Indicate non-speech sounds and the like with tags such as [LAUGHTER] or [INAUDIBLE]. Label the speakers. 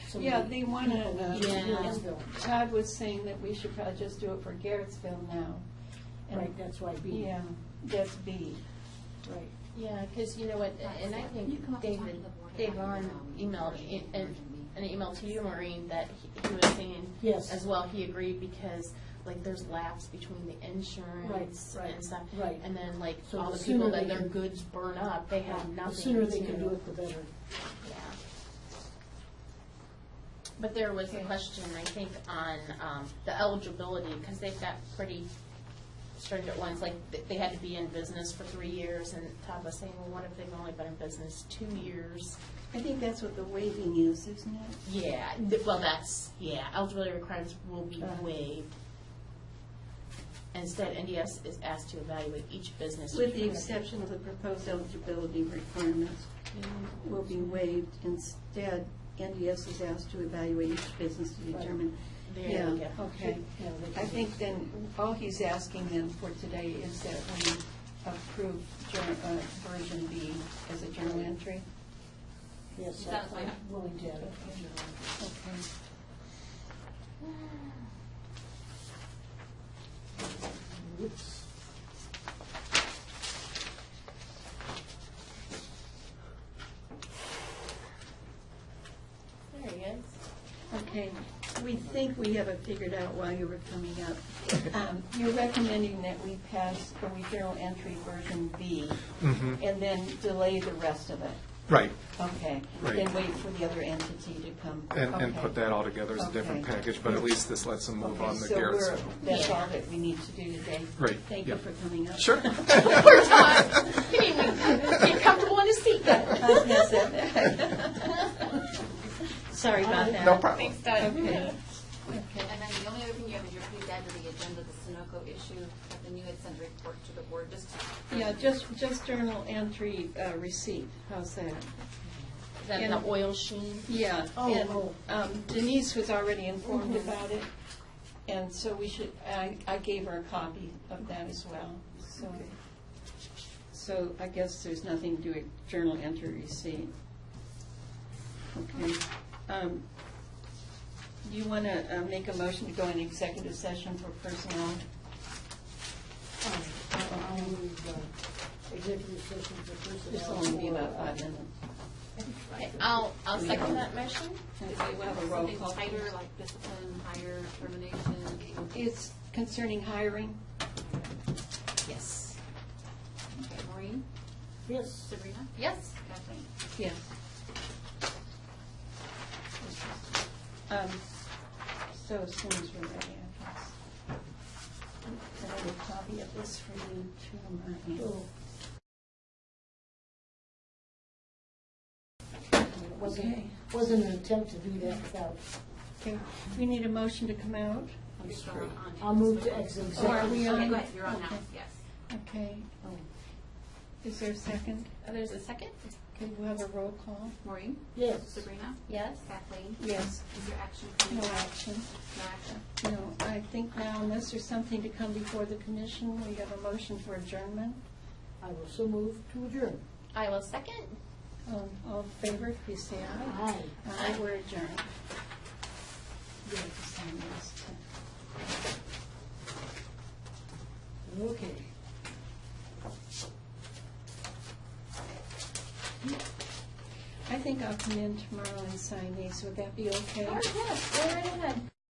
Speaker 1: So
Speaker 2: Yeah,
Speaker 1: we-
Speaker 2: they wanna-
Speaker 1: Yeah.
Speaker 2: and Todd was saying that we should probably just do it for Garrettsville now. And-
Speaker 1: Right, that's why B.
Speaker 2: Yeah, that's B.
Speaker 1: Right.
Speaker 3: Yeah, because you know what, and I
Speaker 4: You come
Speaker 3: think
Speaker 4: up and talk
Speaker 3: David,
Speaker 4: to the board
Speaker 3: Dave
Speaker 4: about
Speaker 3: Vaughn
Speaker 4: your, um,
Speaker 3: emailed,
Speaker 4: version,
Speaker 3: i- an
Speaker 4: version B.
Speaker 3: an email to you, Maureen, that he he was saying
Speaker 1: Yes.
Speaker 3: as well, he agreed because like there's laps between the insurance
Speaker 1: Right, right,
Speaker 3: and stuff.
Speaker 1: right.
Speaker 3: And then like
Speaker 1: So
Speaker 3: all
Speaker 1: the
Speaker 3: the people
Speaker 1: sooner
Speaker 3: that
Speaker 1: they
Speaker 3: their
Speaker 1: can-
Speaker 3: goods burn up, they have
Speaker 2: um,
Speaker 3: nothing
Speaker 1: The sooner they
Speaker 3: to-
Speaker 1: can do it, the better.
Speaker 3: Yeah. But there was a
Speaker 2: Okay.
Speaker 3: question, I think, on um, the eligibility, because they've got pretty stringent ones, like, th- they had to be in business for three years, and Todd was saying, well, what if they've only been in business two years?
Speaker 2: I think that's what the waiving is, isn't it?
Speaker 3: Yeah, th- well, that's, yeah, eligibility requirements will be
Speaker 2: Uh-huh.
Speaker 3: waived. Instead, NDS is asked to evaluate each business.
Speaker 2: With the exception of the proposed eligibility requirements will be waived. Instead, NDS is asked to evaluate each business to determine.
Speaker 3: There you
Speaker 2: Yeah,
Speaker 3: go.
Speaker 2: Okay.
Speaker 1: Yeah, they
Speaker 2: I
Speaker 1: can-
Speaker 2: think then, all he's asking then for today is that we approve jour- uh, version B as a journal entry.
Speaker 1: Yes,
Speaker 4: That was
Speaker 1: I-
Speaker 4: my-
Speaker 1: I'm willing to add it.
Speaker 2: Okay.
Speaker 1: Whoops.
Speaker 3: There he is.
Speaker 2: Okay, we think we have it figured out while you were coming up. Um, You're recommending that we pass the journal entry version B
Speaker 5: Mhm.
Speaker 2: and then delay the rest of it.
Speaker 5: Right,
Speaker 2: Okay.
Speaker 5: Right.
Speaker 2: Then wait for the other entity to come.
Speaker 5: and, and
Speaker 2: Okay.
Speaker 5: put that all together as a different
Speaker 2: Okay.
Speaker 5: package, but at least this lets them move
Speaker 2: Okay,
Speaker 5: on the
Speaker 2: so we're-
Speaker 5: Garrett's.
Speaker 2: That's all that we need to do today.
Speaker 5: Right,
Speaker 2: Thank you
Speaker 5: yeah.
Speaker 2: for coming up.
Speaker 5: Sure.
Speaker 3: Poor Todd. He didn't even get comfortable in his
Speaker 2: [LAUGHS]
Speaker 3: seat
Speaker 2: [LAUGHS]
Speaker 3: then.
Speaker 2: I guess that- [LAUGHS] Sorry about that.
Speaker 5: No problem.
Speaker 2: Okay.
Speaker 4: And then the only other thing you have is your please add to the agenda the Sunoco issue, but then you had sent a report to the board, just.
Speaker 2: Yeah, just, just journal entry uh, receipt, how's that?
Speaker 3: Then the oil sheen.
Speaker 2: Yeah,
Speaker 1: Oh,
Speaker 2: and
Speaker 1: oh.
Speaker 2: um, Denise was already informed about it, and so we should, I, I gave her a copy of that as well, so. So I guess there's nothing to do with journal entry receipt. Okay. Um, You want to make a motion to go in executive session for personnel?
Speaker 1: Um, I- I'll move, uh, executive session for personnel.
Speaker 2: This will only be about five minutes.
Speaker 3: Okay, I'll, I'll second that motion.
Speaker 2: Okay,
Speaker 4: Is it
Speaker 2: we'll have a roll
Speaker 4: something
Speaker 2: call.
Speaker 4: tighter, like discipline, hire, termination?
Speaker 2: It's concerning hiring?
Speaker 3: Yes.
Speaker 4: Okay, Maureen,
Speaker 1: Yes.
Speaker 4: Sabrina,
Speaker 3: Yes.
Speaker 4: Kathleen?
Speaker 2: Yes. Um, So as soon as we're ready, I guess. Can I have a copy of this for you too, Martin?
Speaker 1: Oh. It Wasn't,
Speaker 2: Okay.
Speaker 1: wasn't an attempt to do that without,
Speaker 2: Okay, we need a motion to come out?
Speaker 4: I'm still on.
Speaker 1: I'll move to ex-
Speaker 2: Oh, are we
Speaker 4: Okay,
Speaker 2: on?
Speaker 4: go ahead, you're on now,
Speaker 2: Okay.
Speaker 4: yes.
Speaker 2: Okay. Is there a second?
Speaker 3: Uh, There's a second?
Speaker 2: Okay, we'll have a roll call.
Speaker 4: Maureen,
Speaker 1: yes.
Speaker 4: Sabrina,
Speaker 3: Yes.
Speaker 4: Kathleen,
Speaker 2: Yes,
Speaker 4: is your action
Speaker 2: no
Speaker 4: coming back?
Speaker 2: action.
Speaker 4: No action?
Speaker 2: No, I think now unless there's something to come before the commission, we have a motion for adjournment.
Speaker 1: I will so move to adjourn.
Speaker 3: I will second.
Speaker 2: Um, All in favor, please say aye.
Speaker 1: Aye.
Speaker 2: I were adjourned. You have to sign this, too.
Speaker 1: Okay.
Speaker 2: I think I'll come in tomorrow and sign these. Would that be okay?
Speaker 3: yes. Or